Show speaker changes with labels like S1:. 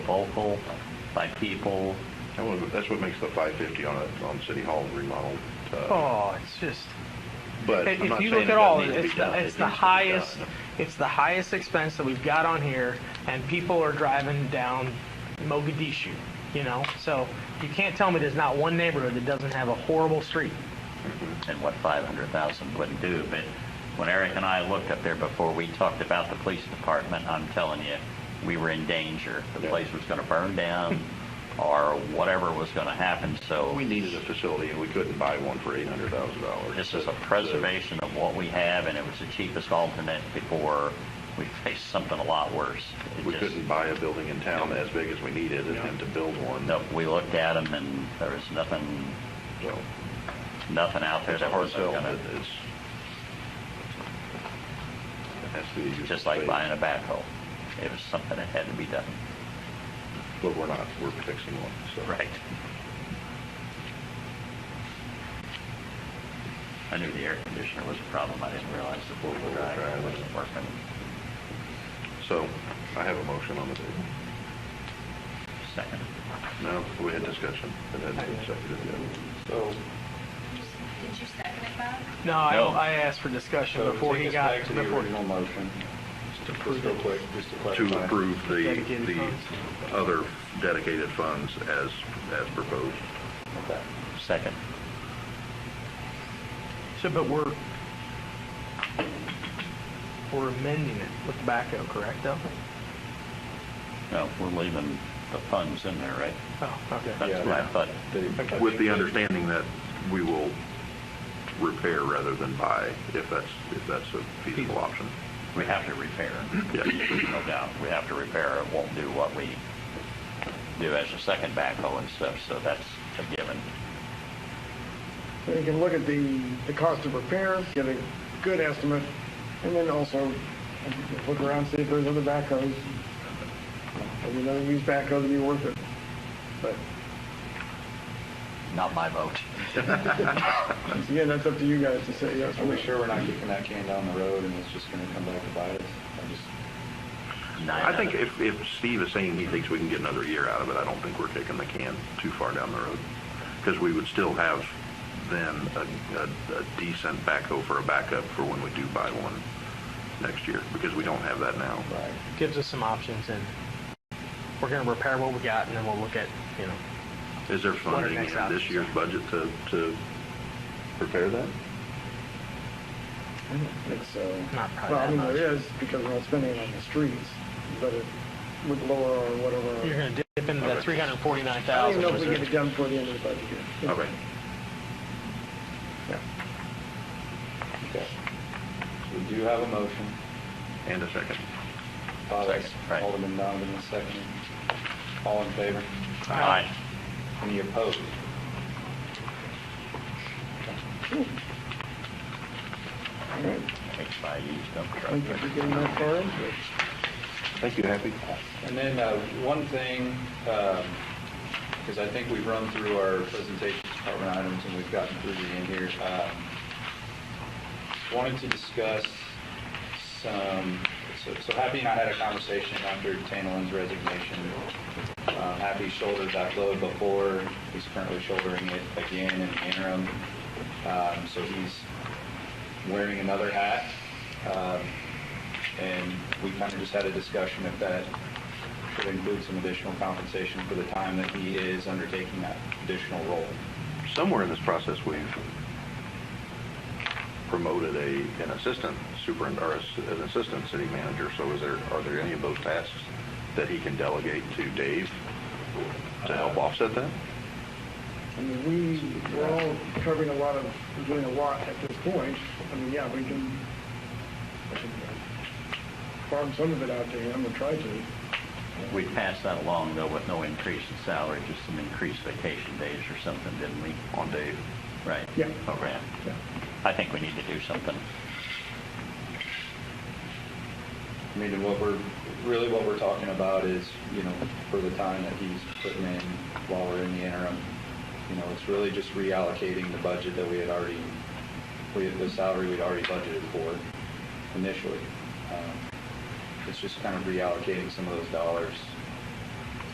S1: local, by people.
S2: That was- That's what makes the five fifty on a, on City Hall remodeled. uh,
S3: Oh, it's just,
S2: But I'm
S3: if
S2: not
S3: you
S2: saying
S3: look
S2: it
S3: at all,
S2: doesn't need to be
S3: it's,
S2: done.
S3: the
S2: It needs
S3: it's the
S2: to be done.
S3: highest, it's the highest expense that we've got on here, and people are driving down Mogadishu, you know? So you can't tell me there's not one neighborhood that doesn't have a horrible street.
S1: and what 500,000 wouldn't do. But when Eric and I looked up there before, we talked about the police department, I'm telling you, we were in danger. The
S2: Yeah.
S1: place was going to burn down or whatever was going to happen, so
S2: We needed a facility and we couldn't buy one for eight hundred thousand dollars.
S1: this is a preservation of what we have, and it was the cheapest alternate before we faced something a lot worse. It
S2: We
S1: just-
S2: couldn't buy a building in town as big as we needed and then to build one.
S1: no, We looked at them, and there was nothing,
S2: So
S1: nothing out there
S2: it's a
S1: that
S2: hard
S1: was
S2: sell,
S1: going
S2: but
S1: to,
S2: it's. it has to be used
S1: just like
S2: space.
S1: buying a backhoe. It was something that had to be done.
S2: But we're not, we're fixing one, so.
S1: Right. I knew the air conditioner was a problem, I didn't realize the four-wheel drive wasn't working.
S2: So I have a motion on the table.
S1: Second.
S2: No, we had discussion, but that hasn't been seconded yet.
S4: So,
S5: Did you second it, Bob?
S3: No, I,
S1: No.
S3: I asked for discussion
S4: so
S3: before
S4: take
S3: he
S4: us
S3: got,
S4: back to the
S3: before,
S4: original motion,
S3: to
S4: just
S3: prove
S4: real
S3: it.
S4: quick, just to clarify.
S2: to approve the,
S3: uh, Dedicated
S2: the
S3: funds.
S2: other dedicated funds as, as proposed.
S4: Okay.
S1: Second.
S3: So, but we're, we're amending it with the backhoe, correct, though?
S1: No, we're leaving the funds in there, right?
S3: Oh, okay.
S1: That's
S4: Yeah.
S1: what I thought.
S4: The-
S2: With the understanding that we will repair rather than buy, if that's, if that's a feasible option.
S1: We have to repair,
S2: Yes.
S1: no doubt. We have to repair, it won't do what we do as a second backhoe and stuff, so that's a given.
S6: So you can look at the, the cost of repairs, get a good estimate, and then also look around, see if there's other backhoes. Maybe another used backhoe to be worth it. But,
S1: Not my vote.
S6: once again, that's up to you guys to say yes or
S4: Are
S6: no.
S4: we sure we're not kicking that can down the road and it's just gonna come back to bite us? I just,
S2: I think if, if Steve is saying he thinks we can get another year out of it, I don't think we're kicking the can too far down the road. Because we would still have then a, a- a decent backhoe for a backup for when we do buy one next year, because we don't have that now.
S4: right.
S3: Gives us some options, and we're gonna repair what we got, and then we'll look at, you know,
S2: Is there
S3: What are
S2: funding
S3: next
S2: in this
S3: options?
S2: year's budget to, to prepare that?
S6: I don't think so.
S3: Not probably
S6: Well, I
S3: that
S6: mean,
S3: much.
S6: there is, because we're not spending it on the streets, but it would lower our whatever. our-
S3: you're gonna dip into that three hundred forty-nine
S6: I don't
S3: thousand.
S6: even know if we get it done before the end of the budget year.
S2: Okay.
S6: Yeah.
S4: Okay. So we do have a motion.
S2: And a second.
S4: Bob,
S1: Second, right.
S4: Alderman Donovan, a second. All in favor?
S2: uh,
S1: Aye.
S4: Any opposed?
S1: Thanks, I used dump
S6: I
S1: truck.
S6: think if we're getting that far into it.
S2: Thank you, Happy.
S4: And then uh, one thing, because I think we've run through our presentation department items and we've gotten through the end here. um, Wanted to discuss some, so so Happy and I had a conversation after Tanolin's resignation. Uh, Happy shouldered that load before, he's currently shouldering it again in the interim. Um, So he's wearing another hat. Um, And we kind of just had a discussion if that should include some additional compensation for the time that he is undertaking that additional role.
S2: Somewhere in this process, we've promoted a, an assistant super, or a- an assistant city manager, so is there, are there any of those tasks that he can delegate to Dave to help offset that?
S6: I mean, we, we're all covering a lot of, we're doing a lot at this point. I mean, yeah, we can, we can farm some of it out to him or try to.
S1: We passed that along, though, with no increase in salary, just some increased vacation days or something, didn't we?
S2: On Dave?
S1: Right.
S6: Yeah.
S1: Oh, right.
S6: Yeah.
S1: I think we need to do something.
S4: I mean, and what we're, really what we're talking about is, you know, for the time that he's putting in while we're in the interim, you know, it's really just reallocating the budget that we had already, we had the salary we'd already budgeted for initially. Um, It's just kind of reallocating some of those dollars